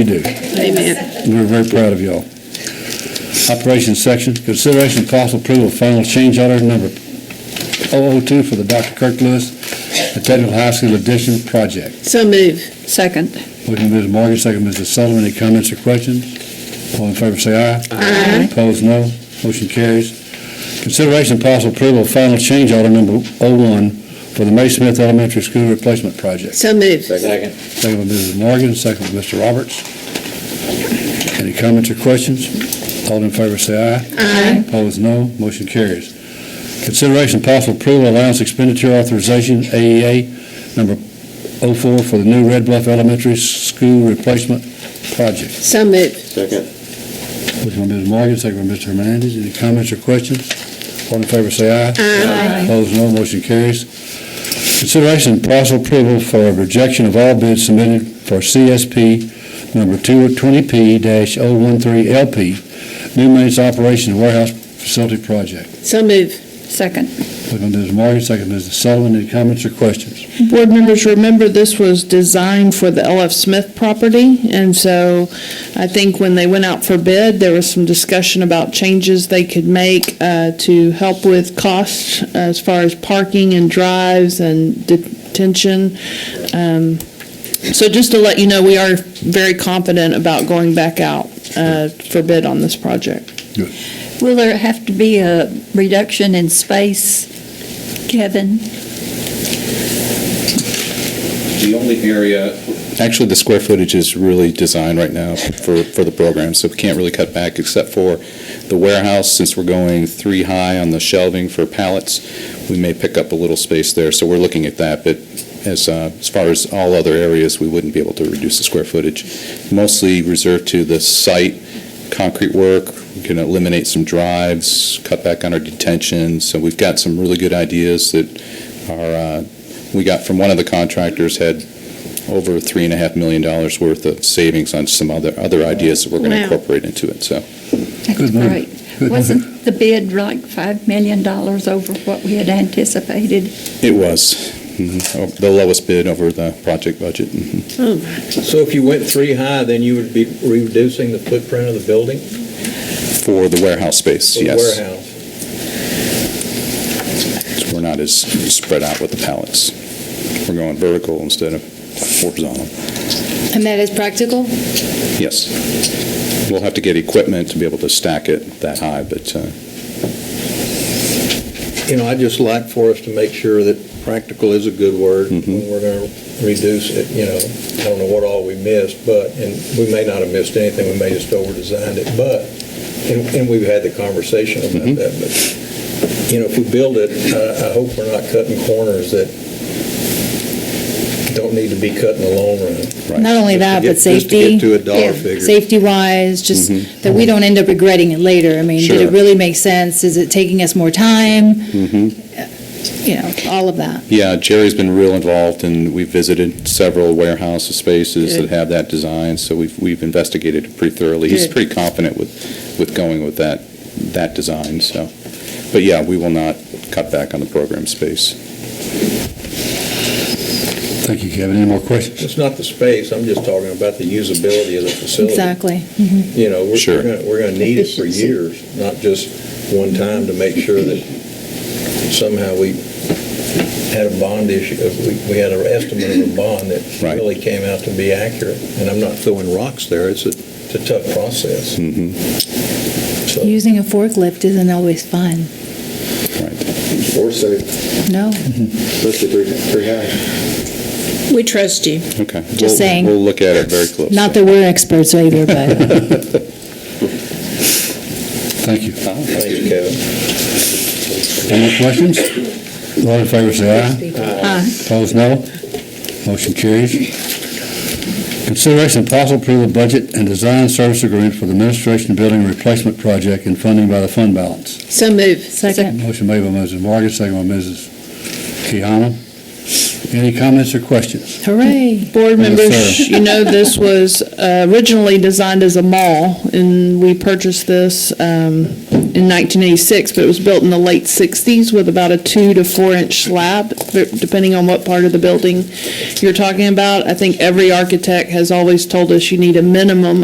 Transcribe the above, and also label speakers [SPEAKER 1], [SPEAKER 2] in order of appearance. [SPEAKER 1] You do.
[SPEAKER 2] Amen.
[SPEAKER 1] We're very proud of y'all. Operations section, consideration of possible approval of final change order number 002 for the Dr. Kirk Lewis the Technical High School Addition Project.
[SPEAKER 2] So move. Second.
[SPEAKER 1] Motion by Ms. Morgan, second by Mrs. Sullivan. Any comments or questions? All in favor, say aye.
[SPEAKER 2] Aye.
[SPEAKER 1] Opposed, no. Motion carries. Consideration of possible approval of final change order number 01 for the May Smith Elementary School Replacement Project.
[SPEAKER 2] So move.
[SPEAKER 3] Second.
[SPEAKER 1] Second by Mrs. Morgan, second by Mr. Roberts. Any comments or questions? All in favor say aye.
[SPEAKER 2] Aye.
[SPEAKER 1] Opposed, no. Motion carries. Consideration and possible approval of allowance expenditure authorization, AEA, number 04, for the new Red Bluff Elementary School Replacement Project.
[SPEAKER 2] So move.
[SPEAKER 3] Second.
[SPEAKER 1] Motion by Mrs. Morgan, second by Mr. Hernandez. Any comments or questions? All in favor say aye.
[SPEAKER 2] Aye.
[SPEAKER 1] Opposed, no. Motion carries. Consideration and possible approval for a rejection of all bids submitted for CSP number 220P-013LP, new maintenance operation and warehouse facility project.
[SPEAKER 2] So move. Second.
[SPEAKER 1] Second by Mrs. Morgan, second by Mrs. Sullivan. Any comments or questions?
[SPEAKER 4] Board members, remember this was designed for the LF Smith property, and so I think when they went out for bid, there was some discussion about changes they could make uh, to help with costs uh, as far as parking and drives and detention. Um, So just to let you know, we are very confident about going back out uh, for bid on this project.
[SPEAKER 5] Will there have to be a reduction in space, Kevin?
[SPEAKER 6] The only area, actually, the square footage is really designed right now for, for the program, so we can't really cut back except for the warehouse, since we're going three high on the shelving for pallets, we may pick up a little space there, so we're looking at that, but as, uh, as far as all other areas, we wouldn't be able to reduce the square footage. Mostly reserved to the site, concrete work, we can eliminate some drives, cut back on our detention, so we've got some really good ideas that are, uh, we got from one of the contractors had over three and a half million dollars worth of savings on some other, other ideas that we're going to
[SPEAKER 2] Wow.
[SPEAKER 6] incorporate into it, so.
[SPEAKER 5] That's
[SPEAKER 1] Good move.
[SPEAKER 5] great.
[SPEAKER 1] Good move.
[SPEAKER 5] Wasn't the bid like $5 million over what we had anticipated?
[SPEAKER 6] It was mhm, oh, the lowest bid over the project budget. mhm.
[SPEAKER 2] Oh, my.
[SPEAKER 3] So if you went three high, then you would be reducing the footprint of the building?
[SPEAKER 6] For the warehouse space,
[SPEAKER 3] for the
[SPEAKER 6] yes.
[SPEAKER 3] Warehouse.
[SPEAKER 6] So We're not as spread out with the pallets. We're going vertical instead of horizontal.
[SPEAKER 7] And that is practical?
[SPEAKER 6] Yes. We'll have to get equipment to be able to stack it that high, but uh,
[SPEAKER 3] You know, I'd just like for us to make sure that practical is a good word when we're going to reduce it, you know. I don't know what all we missed, but, and we may not have missed anything, we may just over-designed it, but, and and we've had the conversation about that, but, you know, if we build it, I I hope we're not cutting corners that don't need to be cut in the long run.
[SPEAKER 6] Right.
[SPEAKER 7] Not only
[SPEAKER 3] Just to
[SPEAKER 7] that,
[SPEAKER 3] get-
[SPEAKER 7] but safety.
[SPEAKER 3] Just to get to a dollar
[SPEAKER 5] Yeah,
[SPEAKER 3] figure. Mm-hmm.
[SPEAKER 7] Safety-wise, just that we don't end up regretting it later. I mean, did
[SPEAKER 6] Sure.
[SPEAKER 7] it really make sense? Is it taking us more time?
[SPEAKER 3] Mm-hmm.
[SPEAKER 7] You know, all of that.
[SPEAKER 6] Yeah, Jerry's been real involved, and we've visited several warehouse spaces that
[SPEAKER 2] Good.
[SPEAKER 6] have that design, so we've, we've investigated it pretty thoroughly. He's
[SPEAKER 2] Good.
[SPEAKER 6] pretty confident with, with going with that, that design, so. But yeah, we will not cut back on the program space.
[SPEAKER 1] Thank you, Kevin. Any more questions?
[SPEAKER 3] It's not the space, I'm just talking about the usability of the facility.
[SPEAKER 7] Exactly.
[SPEAKER 3] You know, we're-
[SPEAKER 6] Sure.
[SPEAKER 3] we're going, we're going to need it for
[SPEAKER 5] Efficiency.
[SPEAKER 3] years, not just one time to make sure that somehow we had a bond issue, uh, we, we had an estimate of a bond that
[SPEAKER 6] Right.
[SPEAKER 3] really came out to be accurate. And I'm not throwing rocks there, it's a, it's a tough process.
[SPEAKER 6] Mhm. Mm-hmm.
[SPEAKER 3] So,
[SPEAKER 7] Using a forklift isn't always fun.
[SPEAKER 6] Right.
[SPEAKER 8] Or safe,
[SPEAKER 7] No,
[SPEAKER 8] especially three, three high.
[SPEAKER 2] We trust you.
[SPEAKER 6] Okay.
[SPEAKER 7] Just
[SPEAKER 6] We'll-
[SPEAKER 7] saying.
[SPEAKER 6] We'll look at it very closely.
[SPEAKER 7] not that we're experts either, but
[SPEAKER 1] Thank you.
[SPEAKER 6] Oh,
[SPEAKER 3] thank you, Kevin.
[SPEAKER 1] Any more questions? All in favor say aye.
[SPEAKER 7] uh,
[SPEAKER 1] Opposed, no. Motion carries. Consideration of possible approval of budget and design service agreement for the administration building replacement project and funding by the fund balance.
[SPEAKER 2] So move.
[SPEAKER 7] second.
[SPEAKER 1] Motion made by Mrs. Morgan, second by Mrs. Kehana. Any comments or questions?
[SPEAKER 7] Hooray.
[SPEAKER 4] Board
[SPEAKER 1] sir.
[SPEAKER 4] members, you know, this was uh, originally designed as a mall, and we purchased this um, in 1986, but it was built in the late 60s with about a two to four inch slab, b- depending on what part of the building you're talking about. I think every architect has always told us you need a minimum